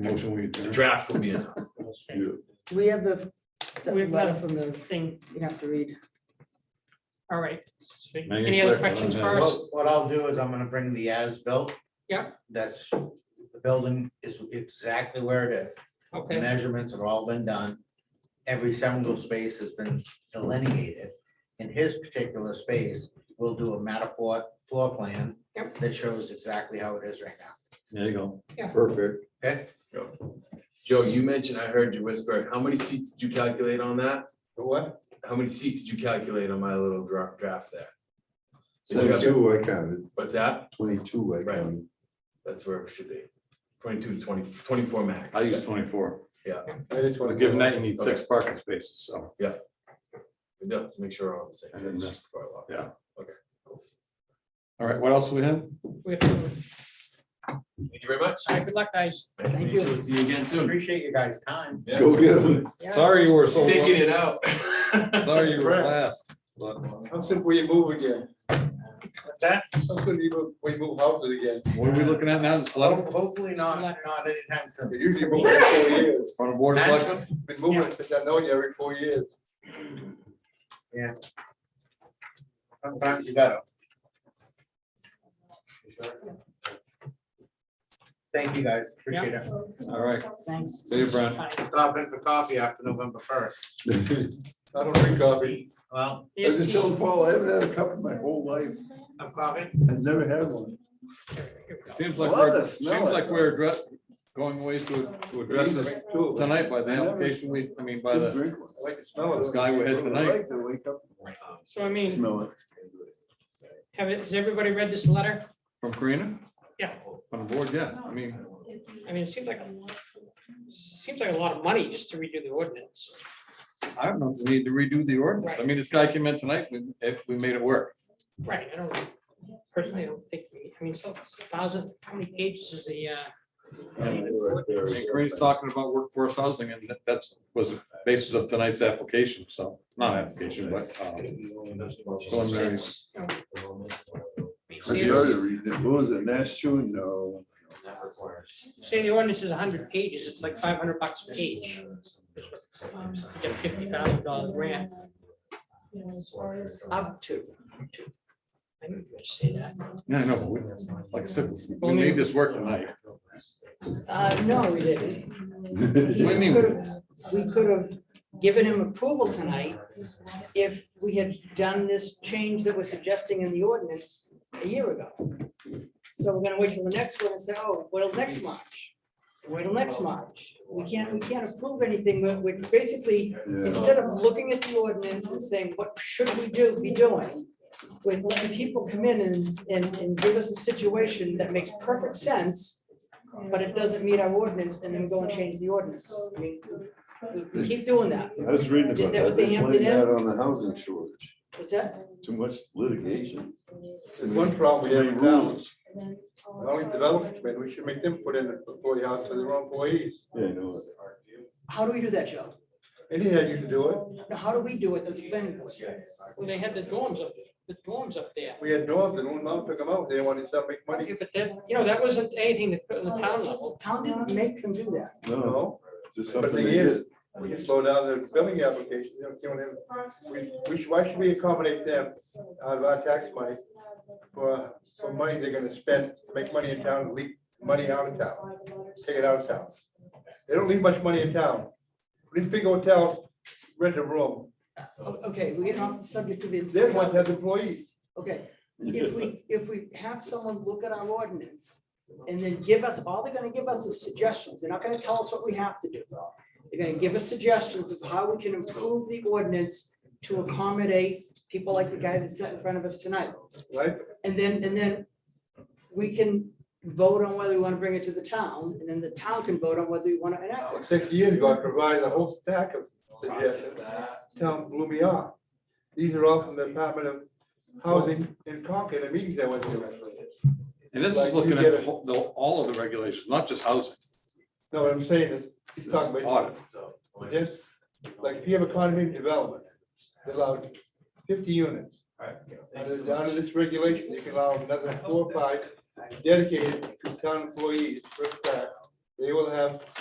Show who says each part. Speaker 1: Motion we
Speaker 2: The
Speaker 1: adjourn.
Speaker 2: draft will be enough.
Speaker 1: Yeah.
Speaker 3: We have the, the
Speaker 4: We've got
Speaker 3: letter
Speaker 4: a
Speaker 3: from the,
Speaker 4: thing,
Speaker 3: you have to read.
Speaker 4: all right.
Speaker 1: Make it
Speaker 4: Any other
Speaker 1: quick, I don't
Speaker 4: questions
Speaker 1: have-
Speaker 4: first?
Speaker 5: What what I'll do is I'm gonna bring the as-built.
Speaker 4: Yeah.
Speaker 5: That's, the building is exactly where it is. The
Speaker 4: Okay,
Speaker 5: measurements have all been done. Every single space has been delineated. In his particular space, we'll do a Matterport floor plan
Speaker 4: Yep.
Speaker 5: that shows exactly how it is right now.
Speaker 1: There you go.
Speaker 4: Yeah.
Speaker 1: Perfect.
Speaker 5: Okay?
Speaker 2: Joe, you mentioned, I heard you whisper, how many seats did you calculate on that?
Speaker 5: What?
Speaker 2: How many seats did you calculate on my little dra- draft there? So you got,
Speaker 6: Twenty-two, I counted,
Speaker 2: what's that?
Speaker 6: twenty-two, I
Speaker 2: Right.
Speaker 6: counted.
Speaker 2: That's where it should be. 22, 20 24 max.
Speaker 1: I use twenty-four.
Speaker 6: I just
Speaker 1: But given that, you need six parking spaces, so.
Speaker 2: Yeah, to make sure we're all on the same.
Speaker 1: I didn't
Speaker 2: page
Speaker 1: miss-
Speaker 2: before I walk.
Speaker 1: yeah.
Speaker 2: Okay. cool.
Speaker 1: All right, what else do we have?
Speaker 4: we have to, all
Speaker 2: Thank you very much.
Speaker 4: right, good luck, guys.
Speaker 2: Nice to
Speaker 3: Thank
Speaker 2: meet you. We'll See you again soon.
Speaker 5: Appreciate your guys' time.
Speaker 2: Yeah.
Speaker 6: Go get 'em.
Speaker 4: Yeah.
Speaker 1: Sorry you were so,
Speaker 2: Sticking it out.
Speaker 1: sorry you were last. but-
Speaker 6: How soon will you move again?
Speaker 5: What's that?
Speaker 6: How soon we move, we move houses again?
Speaker 1: What are we looking at now? This letter
Speaker 5: Ho- Hopefully not, not anytime soon.
Speaker 6: They usually move every four years.
Speaker 1: from the board of selectmen?
Speaker 6: Been moving since I know you every four years.
Speaker 5: Sometimes you gotta. Thank you guys, appreciate it.
Speaker 1: All right,
Speaker 3: Thanks.
Speaker 1: see you, Brent.
Speaker 4: Fine.
Speaker 5: Stop in for coffee after November first.
Speaker 6: I don't drink coffee.
Speaker 5: Well,
Speaker 6: I was just telling Paul, I haven't had a cup in my whole life.
Speaker 5: I'm coffee.
Speaker 6: I've never had one.
Speaker 1: Seems like
Speaker 6: Love
Speaker 1: we're,
Speaker 6: to
Speaker 1: seems
Speaker 6: smell it,
Speaker 1: like
Speaker 6: though.
Speaker 1: we're address, going ways to, to address this
Speaker 6: Two of them.
Speaker 1: tonight by the
Speaker 6: I never-
Speaker 1: application we, I mean, by
Speaker 6: Didn't
Speaker 1: the,
Speaker 6: drink one. I like the smell of
Speaker 1: this
Speaker 6: it.
Speaker 1: guy we had tonight.
Speaker 6: I like to wake up
Speaker 4: So I
Speaker 6: and
Speaker 4: mean,
Speaker 6: smell it.
Speaker 4: have, it- has everybody read this letter?
Speaker 1: from Karina?
Speaker 4: Yeah.
Speaker 1: From the board, yeah, I mean,
Speaker 4: I mean, it seems like, a- seems like a lot of money just to redo the ordinance.
Speaker 1: I don't know, if we need to redo the ordinance, I mean, this guy came in tonight, we, if we made it work.
Speaker 4: Right, I don't, personally, I don't think, we. I mean, so it's a thousand, how many pages is the, uh,
Speaker 1: I mean, Karina's talking about workforce housing, and that- that's, was the basis of tonight's application, so, not application, but, um, preliminary.
Speaker 6: I started reading it. What was it? Mass Chew? No.
Speaker 4: say the ordinance is hundred pages, it's like five hundred bucks a page.
Speaker 5: Um,
Speaker 4: You Get a fifty thousand dollar grant. Up to. up to. I didn't say that.
Speaker 1: Yeah, I know, but we- like I said, we made this work tonight.
Speaker 3: Uh, no, we didn't.
Speaker 1: What do you mean?
Speaker 3: We could have given him approval tonight if we had done this change that we're suggesting in the ordinance a year ago. So we're gonna wait till the next one and say, oh, well, next March, wait till next March. We can't, we can't approve anything, we're, we're basically,
Speaker 6: Yeah.
Speaker 3: instead of looking at the ordinance and saying, what should we do, be doing? With letting people come in and, and, and give us a situation that makes perfect sense, but it doesn't meet our ordinance, and then we go and change the ordinance. I mean, we- we keep doing that.
Speaker 6: I was reading
Speaker 3: Did
Speaker 6: about
Speaker 3: that
Speaker 6: that.
Speaker 3: with the
Speaker 6: They
Speaker 3: Hampton
Speaker 6: blamed
Speaker 3: Inn?
Speaker 6: that on the housing shortage.
Speaker 3: What's that?
Speaker 6: Too much litigation.
Speaker 7: There's one problem we have in town,
Speaker 6: rules.
Speaker 7: the only development, committee, we should make them put in a employee house for their own employees.
Speaker 6: Yeah, I know.
Speaker 3: How do we do that, Joe?
Speaker 7: Anyhow, you can do it.
Speaker 3: Now, How do we do it as a planning board?
Speaker 4: Well, they had the dorms up, the dorms up there.
Speaker 7: We had north and one mom took them out, they wanted to make money,
Speaker 4: Yeah, But that, you know, that wasn't anything that put in the town level.
Speaker 3: Town didn't make them do that.
Speaker 7: you
Speaker 6: No,
Speaker 7: know?
Speaker 6: it's just
Speaker 7: But the
Speaker 6: something.
Speaker 7: thing
Speaker 6: they did.
Speaker 7: is, we can slow down their building applications, you know, giving them, we, we, should- why should we accommodate them out of our tax money for, for money they're gonna spend, make money in town, leak money out of town, take it out of town. They don't leave much money in town. These big hotels rent a room,
Speaker 3: O- Okay, we're getting off the subject of it.
Speaker 7: they're ones that have employees.
Speaker 3: Okay, if we, if we have someone look at our ordinance and then give us, all they're gonna give us is suggestions. They're not gonna tell us what we have to do. They're gonna give us suggestions of how we can improve the ordinance to accommodate people like the guy that sat in front of us tonight.
Speaker 7: Right?
Speaker 3: And then, and then we can vote on whether we wanna bring it to the town, and then the town can vote on whether we wanna enact it.
Speaker 7: Six years ago, I provided a whole stack of suggestions. Town blew me off. These are all from the Department of Housing in Concord, the meetings I went to.
Speaker 1: And this is looking at the whole- the, all of the regulations, not just housing.
Speaker 7: No, what I'm saying is, he's talking about, just, like, if you have a condominium development, they allow fifty units. Under, under this regulation, you can allow another four, or five dedicated to town employees, first class,
Speaker 6: they will have